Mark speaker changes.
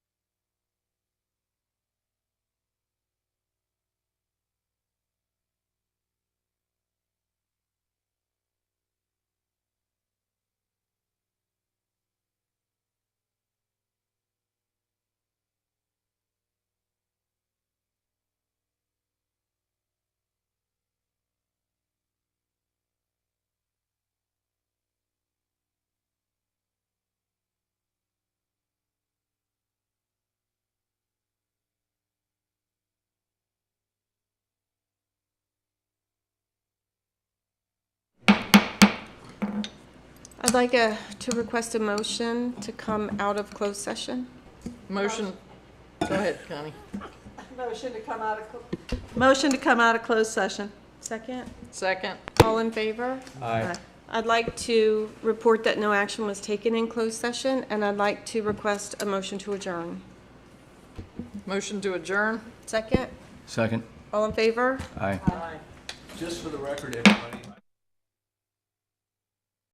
Speaker 1: I'd like a, to request a motion to come out of closed session.
Speaker 2: Motion, go ahead, Connie.
Speaker 3: Motion to come out of, clo- motion to come out of closed session.
Speaker 1: Second.
Speaker 2: Second,
Speaker 1: All in favor?
Speaker 4: Aye.
Speaker 1: I'd like to report that no action was taken in closed session, and I'd like to request a motion to adjourn.
Speaker 2: motion to adjourn.
Speaker 1: Second.
Speaker 4: Second.
Speaker 1: All in favor?
Speaker 4: Aye.
Speaker 3: Aye.
Speaker 4: Just for the record, everybody.